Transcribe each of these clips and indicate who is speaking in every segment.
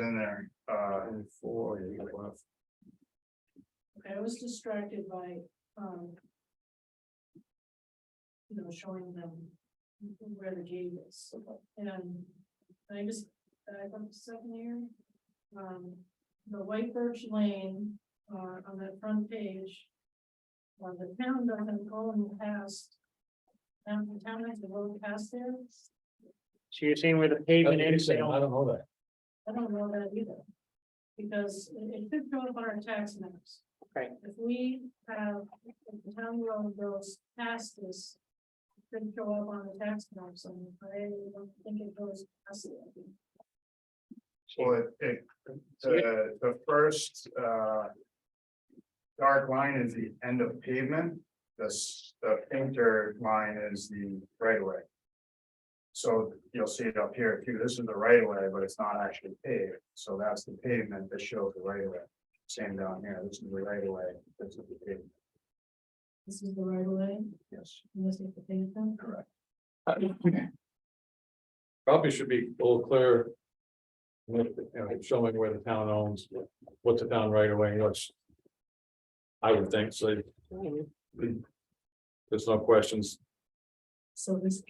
Speaker 1: in there, uh,
Speaker 2: And four, you got one of-
Speaker 3: I was distracted by, um. You know, showing them where the gate is, and I just, I went to second year. Um, the White Birch Lane, uh, on that front page. Well, the town doesn't own past. Town, the town has to go past there,
Speaker 4: So you're saying where the
Speaker 2: That's
Speaker 4: pavement
Speaker 2: what you
Speaker 4: is, they
Speaker 2: said, Uh, I
Speaker 4: don't-
Speaker 2: don't know that.
Speaker 3: I don't know that either. Because it it could go up on our tax maps.
Speaker 4: Right.
Speaker 3: If we have, if the town road goes past this. it Could show up on the tax maps, and I don't think it goes past it.
Speaker 1: well, it- it, the, the first, uh. Dark line is the end of pavement, the, s- the painter line is the right of way. So you'll see it up here too, this is the right of way, but it's not actually paved, so that's the pavement that shows the right of way. Same down here, this is the right of way, this is the pavement,
Speaker 3: This is the right of way,
Speaker 1: yes,
Speaker 3: and this is the pavement.
Speaker 1: correct.
Speaker 2: uh, Probably should be a little clearer. With, you know, showing where the town owns, what's the town right away, you know, it's. I would think, so there's no questions,
Speaker 3: So this.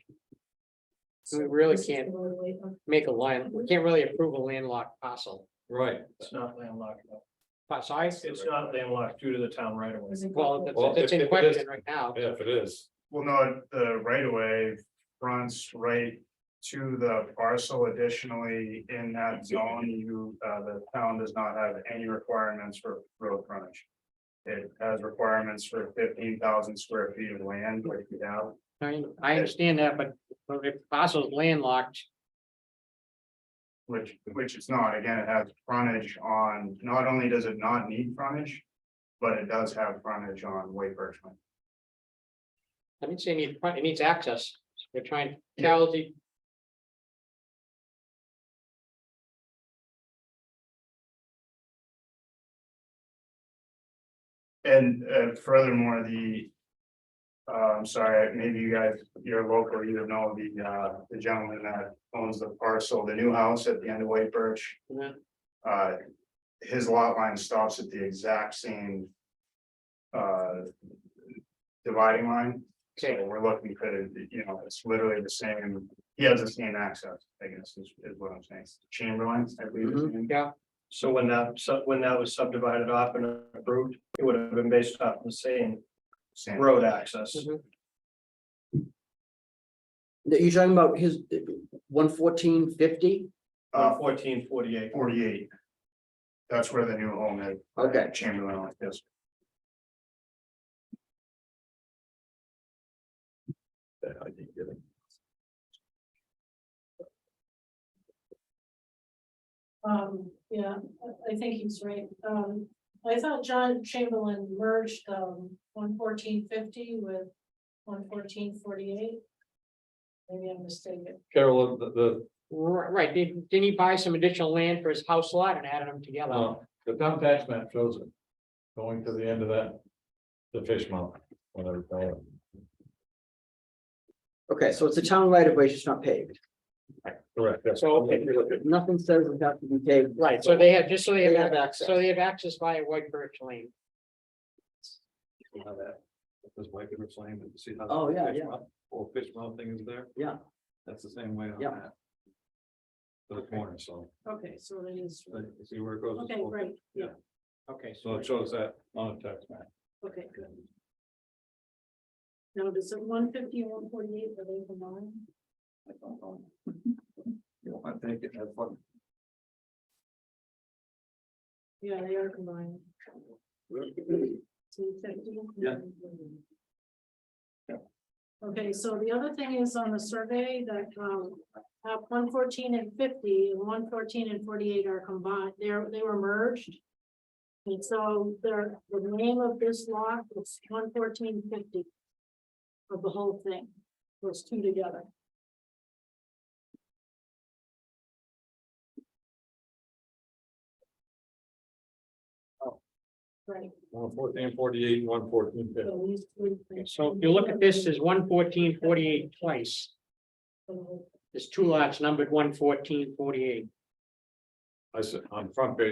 Speaker 4: We really
Speaker 3: this is the
Speaker 4: can't.
Speaker 3: right of way up.
Speaker 4: make a line, we can't really approve a landlocked parcel.
Speaker 2: right?
Speaker 5: It's not landlocked. no.
Speaker 4: Lot size?
Speaker 5: It's not landlocked due to the town right of way.
Speaker 3: Does it go
Speaker 4: Well,
Speaker 3: up?
Speaker 2: Well,
Speaker 4: that's, that's
Speaker 2: if- if it
Speaker 4: in
Speaker 2: is-
Speaker 4: question right now.
Speaker 2: Yeah, if it is,
Speaker 1: Well, no, the right of way fronts right to the parcel additionally in that zone, you, uh, the town does not have any requirements for road frontage. It has requirements for fifteen thousand square feet of land, which we have,
Speaker 4: I mean, I understand that, but but if the parcel's landlocked,
Speaker 1: which, which it's not, again, it has frontage on, not only does it not need frontage. But it does have frontage on Way Birchman,
Speaker 4: I didn't say it needs, front- it needs access. They're trying, Carol, do you-
Speaker 1: and, uh, furthermore, the. Uh, I'm sorry, maybe you guys, you're local, you don't know the, uh, the gentleman that owns the parcel, the new house at the end of White Birch.
Speaker 4: Yeah.
Speaker 1: Uh, his lot line stops at the exact same. Uh. Dividing line, so
Speaker 4: okay,
Speaker 1: we're looking for, the you know, it's literally the same, he has the same access, I guess, is, is what I'm saying, Chamberlain, I believe. his name.
Speaker 4: yeah,
Speaker 5: So when that, sub- when that was subdivided off and approved, it would have been based off the same
Speaker 1: Same.
Speaker 5: road access.
Speaker 4: mhm.
Speaker 6: You're talking about his one fourteen fifty?
Speaker 1: Uh,
Speaker 5: Fourteen forty-eight.
Speaker 1: forty-eight. That's where the new home is.
Speaker 6: Okay.
Speaker 1: Chamberlain like this.
Speaker 2: that I didn't get it.
Speaker 3: Um, yeah, I- I think he's right. Um, I thought John Chamberlain merged, um, one fourteen fifty with one fourteen forty-eight. Maybe I'm mistaken.
Speaker 2: Carol, the, the,
Speaker 4: Ri- Right, didn't, didn't he buy some additional land for his house lot and added them together?
Speaker 2: no, the town tax map shows it. Going to the end of that. The fish mouth, whatever. they call it.
Speaker 6: Okay, so it's a town right of way, it's just not paved.
Speaker 2: Correct, that's.
Speaker 4: So, okay.
Speaker 6: Nothing says it has to be paved.
Speaker 4: Right, so they have, just so they
Speaker 6: They
Speaker 4: have,
Speaker 6: have access.
Speaker 4: so they have access via White Birch Lane.
Speaker 2: How that, this white river flame, and see how. the
Speaker 6: Oh, yeah,
Speaker 2: fish
Speaker 6: yeah.
Speaker 2: mouth- Or fish mouth thing is there?
Speaker 6: Yeah.
Speaker 2: That's the same way on
Speaker 6: Yeah.
Speaker 2: that. To The corner, so,
Speaker 3: Okay, so it is,
Speaker 2: uh, you see where it goes.
Speaker 3: okay, right, yeah,
Speaker 4: Okay,
Speaker 2: So
Speaker 4: so
Speaker 2: it shows that on a tax map.
Speaker 3: okay, good. Now, does it one fifty and one forty-eight relate to mine?
Speaker 2: You want to take it, have fun.
Speaker 3: Yeah, they are combined. Two fifty.
Speaker 2: Yeah.
Speaker 3: Okay, so the other thing is on the survey that, um, app one fourteen and fifty, and one fourteen and forty-eight are combined, they're, they were merged. And so they're, the name of this lot is one fourteen fifty. Of the whole thing, those two together. Right,
Speaker 2: One fourteen forty-eight, one fourteen fifty.
Speaker 3: so these three. things.
Speaker 4: so if you look at this, there's one fourteen forty-eight twice.
Speaker 3: So
Speaker 4: There's two lots numbered one fourteen forty-eight.
Speaker 2: I said, on the front page,